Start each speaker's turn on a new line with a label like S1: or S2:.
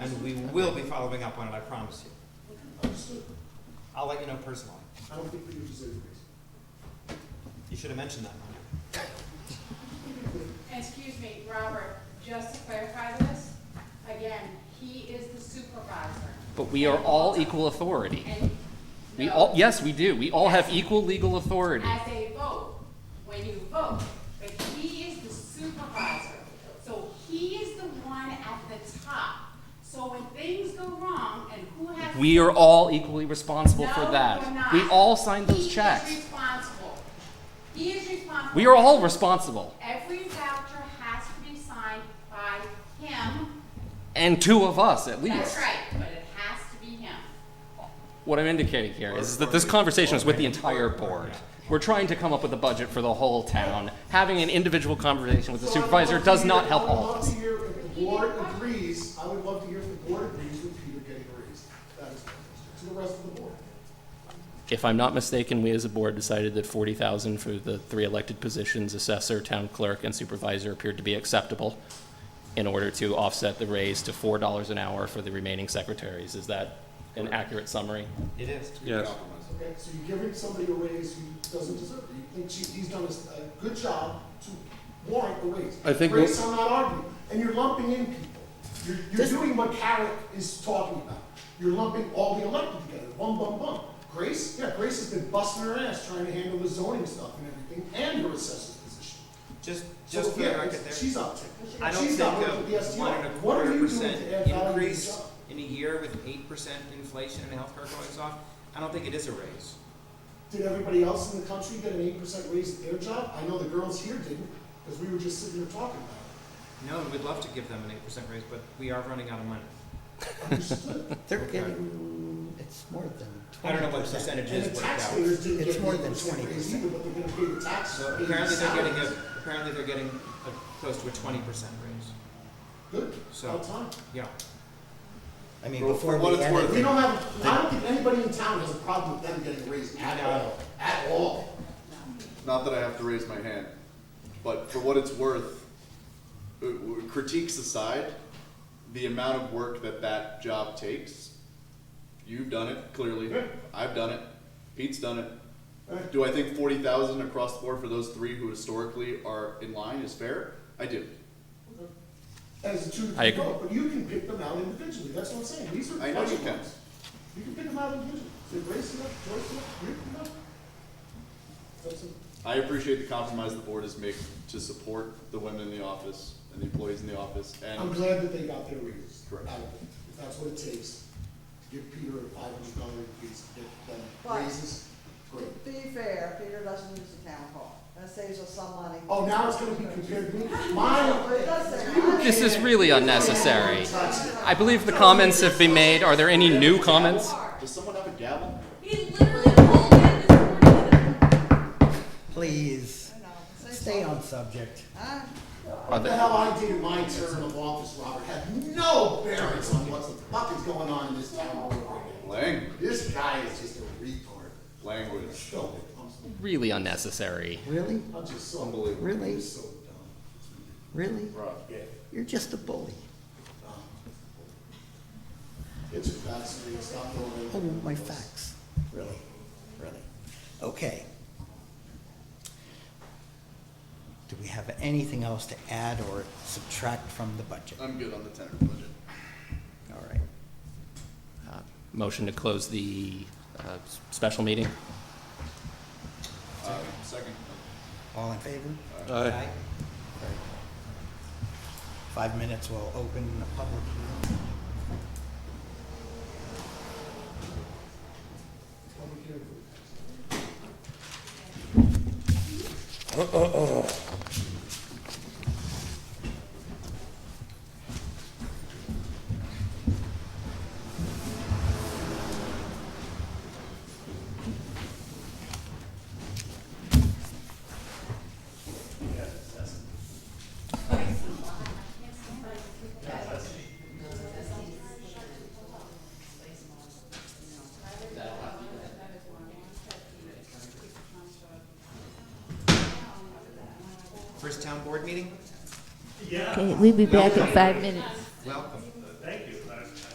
S1: we will be following up on it, I promise you.
S2: Understood.
S1: I'll let you know personally.
S2: I don't think we need to say this.
S1: You should have mentioned that, Mike.
S3: Excuse me, Robert, just to clarify this, again, he is the supervisor.
S4: But we are all equal authority.
S3: And,
S4: We
S3: no,
S4: all, yes, we do. We all have equal legal authority.
S3: As a vote, when you vote, but he is the supervisor. So he is the one at the top. So when things go wrong and who has.
S4: We are all equally responsible
S3: No,
S4: for
S3: you're
S4: that.
S3: not.
S4: We all signed those
S3: He is
S4: checks.
S3: responsible. He is responsible.
S4: We are all responsible.
S3: Every voucher has to be signed by him.
S4: And two of us, at
S3: That's
S4: least.
S3: right, but it has to be him.
S4: What I'm indicating here is that this conversation is with the entire board. We're trying to come up with a budget for the whole town. Having an individual conversation with the
S2: So I would
S4: supervisor
S2: love to
S4: does
S2: hear-
S4: not help
S2: I would
S4: all of
S2: love
S4: us.
S2: to hear if the board agrees, I would love to hear if the board agrees with Peter getting a raise. That is my question, to the rest of the board.
S4: If I'm not mistaken, we as a board decided that forty thousand for the three elected positions, assessor, town clerk, and supervisor appeared to be acceptable in order to offset the raise to four dollars an hour for the remaining secretaries. Is that an accurate summary?
S1: It is.
S5: Yes.
S2: Okay, so you're giving somebody a raise who doesn't deserve it. You think she, he's done a s- a good job to warrant the raise.
S5: I think
S2: Raise, I'm not arguing, and you're lumping in people. You're, you're doing what Carrick is talking about. You're lumping all the elected together, one bum bum. Grace, yeah, Grace has been busting her ass trying to handle the zoning stuff and everything, and her assessor's position.
S1: Just,
S2: So,
S1: just for the
S2: yeah,
S1: record
S2: it's-
S1: there,
S2: She's up to.
S1: I don't
S2: She's
S1: think
S2: not working for the
S1: a
S2: STR.
S1: one and a
S2: What are
S1: quarter
S2: you doing to
S1: percent
S2: add value to the
S1: increase
S2: job?
S1: in a year with eight percent inflation and healthcare going on, I don't think it is a raise.
S2: Did everybody else in the country get an eight percent raise at their job? I know the girls here didn't, because we were just sitting here talking about
S1: No, and we'd love to give them an eight percent raise, but we are running out of money.
S2: it. Understood.
S6: They're getting, it's more than
S1: I
S6: twenty
S1: don't know what
S6: percent.
S1: percentage
S2: And
S1: is
S2: the
S1: worked out.
S2: taxpayers didn't
S6: It's
S2: get an
S6: more
S2: eight
S6: than
S2: percent raise
S6: 20%.
S2: either, but they're gonna pay the taxes.
S1: So
S2: pay the
S1: apparently they're getting a,
S2: salaries.
S1: apparently they're getting a, close to a twenty percent raise.
S2: Good,
S1: so-
S2: all time.
S1: Yeah.
S6: I mean,
S5: Well,
S6: before
S5: for what
S6: we
S5: it's
S6: added
S5: worth,
S2: We don't have, I don't think anybody in town has a problem with them getting a raise at all, at all.
S5: Not that I have to raise my hand, but for what it's worth, uh, w- critiques aside, the amount of work that that job takes, you've done it, clearly.
S2: Yeah.
S5: I've done it. Pete's done it.
S2: Right?
S5: Do I think forty thousand across the board for those three who historically are in line is fair? I do.
S2: As a two to
S4: I
S2: three
S4: agree.
S2: vote, but you can pick them out individually, that's what I'm saying, these are
S5: I know you
S2: budget
S5: can.
S2: ones. You can pick them out individually, they're Grace enough, Joyce enough, Ruth enough. That's it.
S5: I appreciate the compromise the board has made to support the women in the office and the employees in the office
S2: I'm
S5: and
S2: glad that they got their raises.
S5: Correct.
S2: out of it. If that's what it takes, give Peter a five hundred dollar increase, get them
S7: Right.
S2: raises, great.
S7: To be fair, Peter doesn't use the town hall. That saves us some money.
S2: Oh, now it's gonna be compared to me, my,
S7: But it does save money.
S4: This is really unnecessary.
S2: that's it.
S4: I believe the comments have been made. Are there any new comments?
S5: does someone have a gavel?
S3: He literally pulled in this morning.
S6: Please,
S7: I know, it saves
S6: stay
S7: money.
S6: on subject.
S7: Ah,
S4: Are
S2: What the
S4: there-
S2: hell I did in my term of office, Robert, had no bearings on what the fuck is going on in this town all over again.
S5: Language,
S2: This guy is just a retard.
S5: language.
S2: Go, I'm,
S4: Really unnecessary.
S6: Really?
S2: I'm just so.
S5: Unbelievable.
S6: Really?
S2: I'm just so dumb.
S6: Really?
S5: Rob.
S6: You're just a bully.
S2: It's a fascinating, stop going.
S6: I want my facts. Really? Really? Okay. Do we have anything else to add or subtract from the budget?
S5: I'm good on the tenor budget.
S6: All right.
S4: Uh, Motion to close the uh, s- special meeting?
S5: Uh, Second.
S6: All in favor?
S1: Aye.
S6: Very good. Five minutes will open the public hearing.
S1: First town board meeting?
S8: Okay, we'll be back in five minutes.